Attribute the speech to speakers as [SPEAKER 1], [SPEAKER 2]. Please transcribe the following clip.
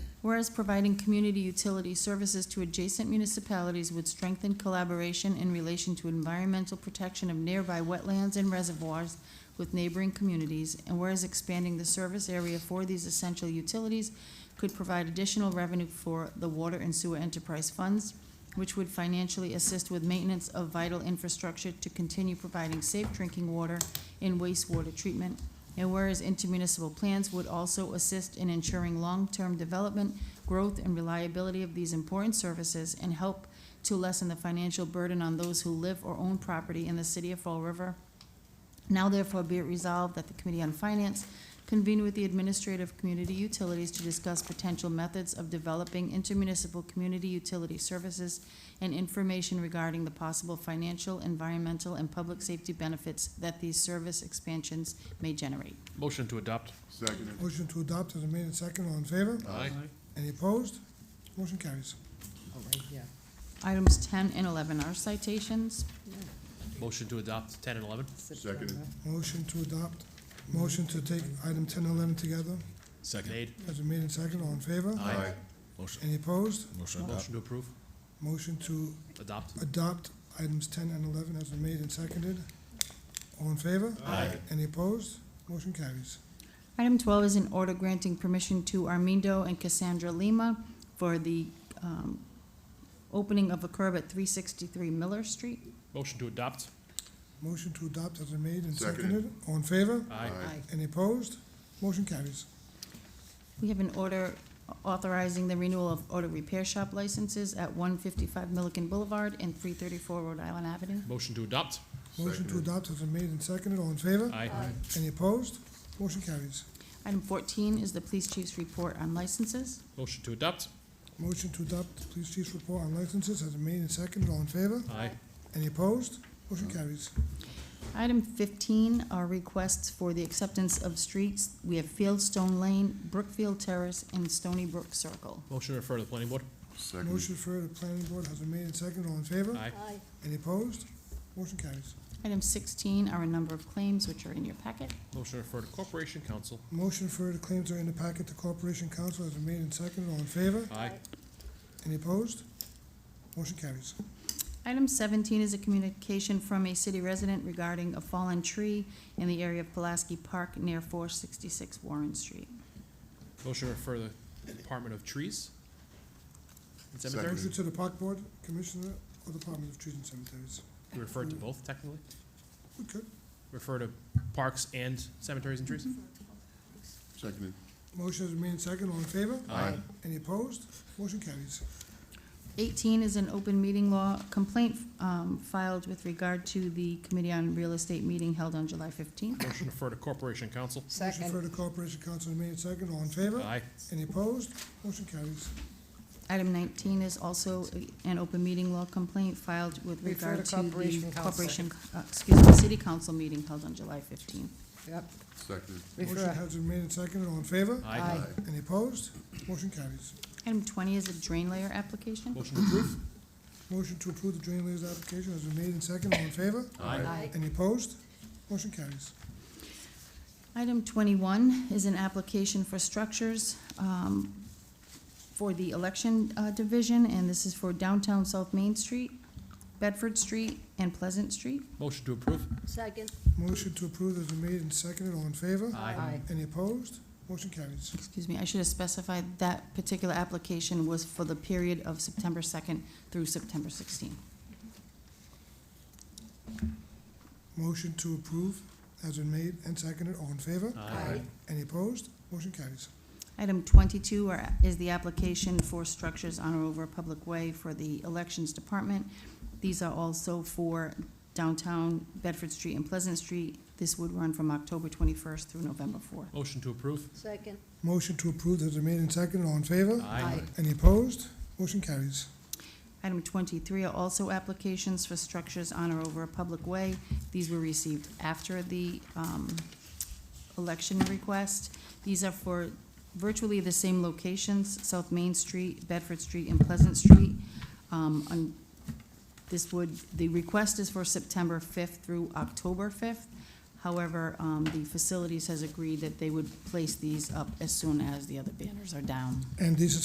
[SPEAKER 1] Whereas providing community utility services to adjacent municipalities would strengthen collaboration in relation to environmental protection of nearby wetlands and reservoirs with neighboring communities, and whereas expanding the service area for these essential utilities could provide additional revenue for the water and sewer enterprise funds, which would financially assist with maintenance of vital infrastructure to continue providing safe drinking water and wastewater treatment, and whereas intermunicipal plans would also assist in ensuring long-term development, growth, and reliability of these important services and help to lessen the financial burden on those who live or own property in the city of Fall River. Now therefore be it resolved that the Committee on Finance convene with the Administrative Community Utilities to discuss potential methods of developing intermunicipal community utility services and information regarding the possible financial, environmental, and public safety benefits that these service expansions may generate.
[SPEAKER 2] Motion to adopt.
[SPEAKER 3] Seconded.
[SPEAKER 4] Motion to adopt has been made and second. All in favor?
[SPEAKER 2] Aye.
[SPEAKER 4] Any opposed? Motion carries.
[SPEAKER 5] All right, yeah.
[SPEAKER 1] Items ten and eleven are citations.
[SPEAKER 2] Motion to adopt ten and eleven.
[SPEAKER 3] Seconded.
[SPEAKER 5] September.
[SPEAKER 4] Motion to adopt, motion to take item ten and eleven together
[SPEAKER 6] Second.
[SPEAKER 2] Made.
[SPEAKER 4] has been made and second. All in favor?
[SPEAKER 3] Aye.
[SPEAKER 6] Motion,
[SPEAKER 4] Any opposed?
[SPEAKER 6] motion adopt.
[SPEAKER 2] Motion to approve.
[SPEAKER 4] Motion to
[SPEAKER 2] Adopt.
[SPEAKER 4] adopt items ten and eleven has been made and seconded. All in favor?
[SPEAKER 2] Aye.
[SPEAKER 4] Any opposed? Motion carries.
[SPEAKER 1] Item twelve is an order granting permission to Armindo and Cassandra Lima for the, um, opening of a curb at three sixty-three Miller Street.
[SPEAKER 2] Motion to adopt.
[SPEAKER 4] Motion to adopt has been made and
[SPEAKER 3] Seconded.
[SPEAKER 4] seconded. All in favor?
[SPEAKER 2] Aye.
[SPEAKER 4] Any opposed? Motion carries.
[SPEAKER 1] We have an order authorizing the renewal of auto repair shop licenses at one fifty-five Milliken Boulevard and three thirty-four Rhode Island Avenue.
[SPEAKER 2] Motion to adopt.
[SPEAKER 4] Motion to
[SPEAKER 3] Seconded.
[SPEAKER 4] adopt has been made and seconded. All in favor?
[SPEAKER 2] Aye.
[SPEAKER 4] Any opposed? Motion carries.
[SPEAKER 1] Item fourteen is the police chief's report on licenses.
[SPEAKER 2] Motion to adopt.
[SPEAKER 4] Motion to adopt the police chief's report on licenses has been made and seconded. All in favor?
[SPEAKER 2] Aye.
[SPEAKER 4] Any opposed? Motion carries.
[SPEAKER 1] Item fifteen are requests for the acceptance of streets. We have Fieldstone Lane, Brookfield Terrace, and Stony Brook Circle.
[SPEAKER 2] Motion to refer to the planning board.
[SPEAKER 3] Seconded.
[SPEAKER 4] Motion for the planning board has been made and seconded. All in favor?
[SPEAKER 2] Aye.
[SPEAKER 4] Any opposed? Motion carries.
[SPEAKER 1] Item sixteen are a number of claims which are in your packet.
[SPEAKER 2] Motion to refer to corporation council.
[SPEAKER 4] Motion for the claims are in the packet. The corporation council has been made and seconded. All in favor?
[SPEAKER 2] Aye.
[SPEAKER 4] Any opposed? Motion carries.
[SPEAKER 1] Item seventeen is a communication from a city resident regarding a fallen tree in the area of Pulaski Park near four sixty-six Warren Street.
[SPEAKER 2] Motion to refer to the Department of Trees. and Cemeteries.
[SPEAKER 4] Motion to the park board, commissioner, or Department of Trees and Cemeteries.
[SPEAKER 2] We referred to both technically.
[SPEAKER 4] We could.
[SPEAKER 2] Refer to parks and cemeteries and trees.
[SPEAKER 3] Seconded.
[SPEAKER 4] Motion has been made and seconded. All in favor?
[SPEAKER 3] Aye.
[SPEAKER 4] Any opposed? Motion carries.
[SPEAKER 1] Eighteen is an open meeting law complaint um, filed with regard to the Committee on Real Estate meeting held on July fifteenth.
[SPEAKER 2] Motion to refer to corporation council.
[SPEAKER 4] Motion for
[SPEAKER 5] Second,
[SPEAKER 4] the corporation council has been made and seconded. All in favor?
[SPEAKER 2] Aye.
[SPEAKER 4] Any opposed? Motion carries.
[SPEAKER 1] Item nineteen is also an open meeting law complaint filed with
[SPEAKER 5] Refer to
[SPEAKER 1] regard to
[SPEAKER 5] Corporation
[SPEAKER 1] the
[SPEAKER 5] Council.
[SPEAKER 1] corporation, uh, excuse me, City Council meeting held on July fifteenth.
[SPEAKER 5] yep,
[SPEAKER 3] Seconded.
[SPEAKER 4] Motion
[SPEAKER 5] refer,
[SPEAKER 4] has been made and seconded. All in favor?
[SPEAKER 2] Aye.
[SPEAKER 4] Any opposed? Motion carries.
[SPEAKER 1] Item twenty is a drain layer application.
[SPEAKER 2] Motion to approve.
[SPEAKER 4] Motion to approve the drain layers application has been made and seconded. All in favor?
[SPEAKER 5] aye,
[SPEAKER 4] Any opposed? Motion carries.
[SPEAKER 1] Item twenty-one is an application for structures um, for the election uh, division, and this is for downtown South Main Street, Bedford Street, and Pleasant Street.
[SPEAKER 2] Motion to approve.
[SPEAKER 7] Second.
[SPEAKER 4] Motion to approve has been made and seconded. All in favor?
[SPEAKER 5] aye,
[SPEAKER 4] Any opposed? Motion carries.
[SPEAKER 1] Excuse me, I should have specified that particular application was for the period of September second through September sixteenth.
[SPEAKER 4] Motion to approve has been made and seconded. All in favor?
[SPEAKER 7] Aye.
[SPEAKER 4] Any opposed? Motion carries.
[SPEAKER 1] Item twenty-two are- is the application for structures on or over a public way for the Elections Department. These are also for downtown Bedford Street and Pleasant Street. This would run from October twenty-first through November fourth.
[SPEAKER 2] Motion to approve.
[SPEAKER 7] Second.
[SPEAKER 4] Motion to approve has been made and seconded. All in favor?
[SPEAKER 5] aye,
[SPEAKER 4] Any opposed? Motion carries.
[SPEAKER 1] Item twenty-three are also applications for structures on or over a public way. These were received after the um, election request. These are for virtually the same locations, South Main Street, Bedford Street, and Pleasant Street. Um, on- This would, the request is for September fifth through October fifth. However, um, the facilities has agreed that they would place these up as soon as the other banners are down.
[SPEAKER 4] And these are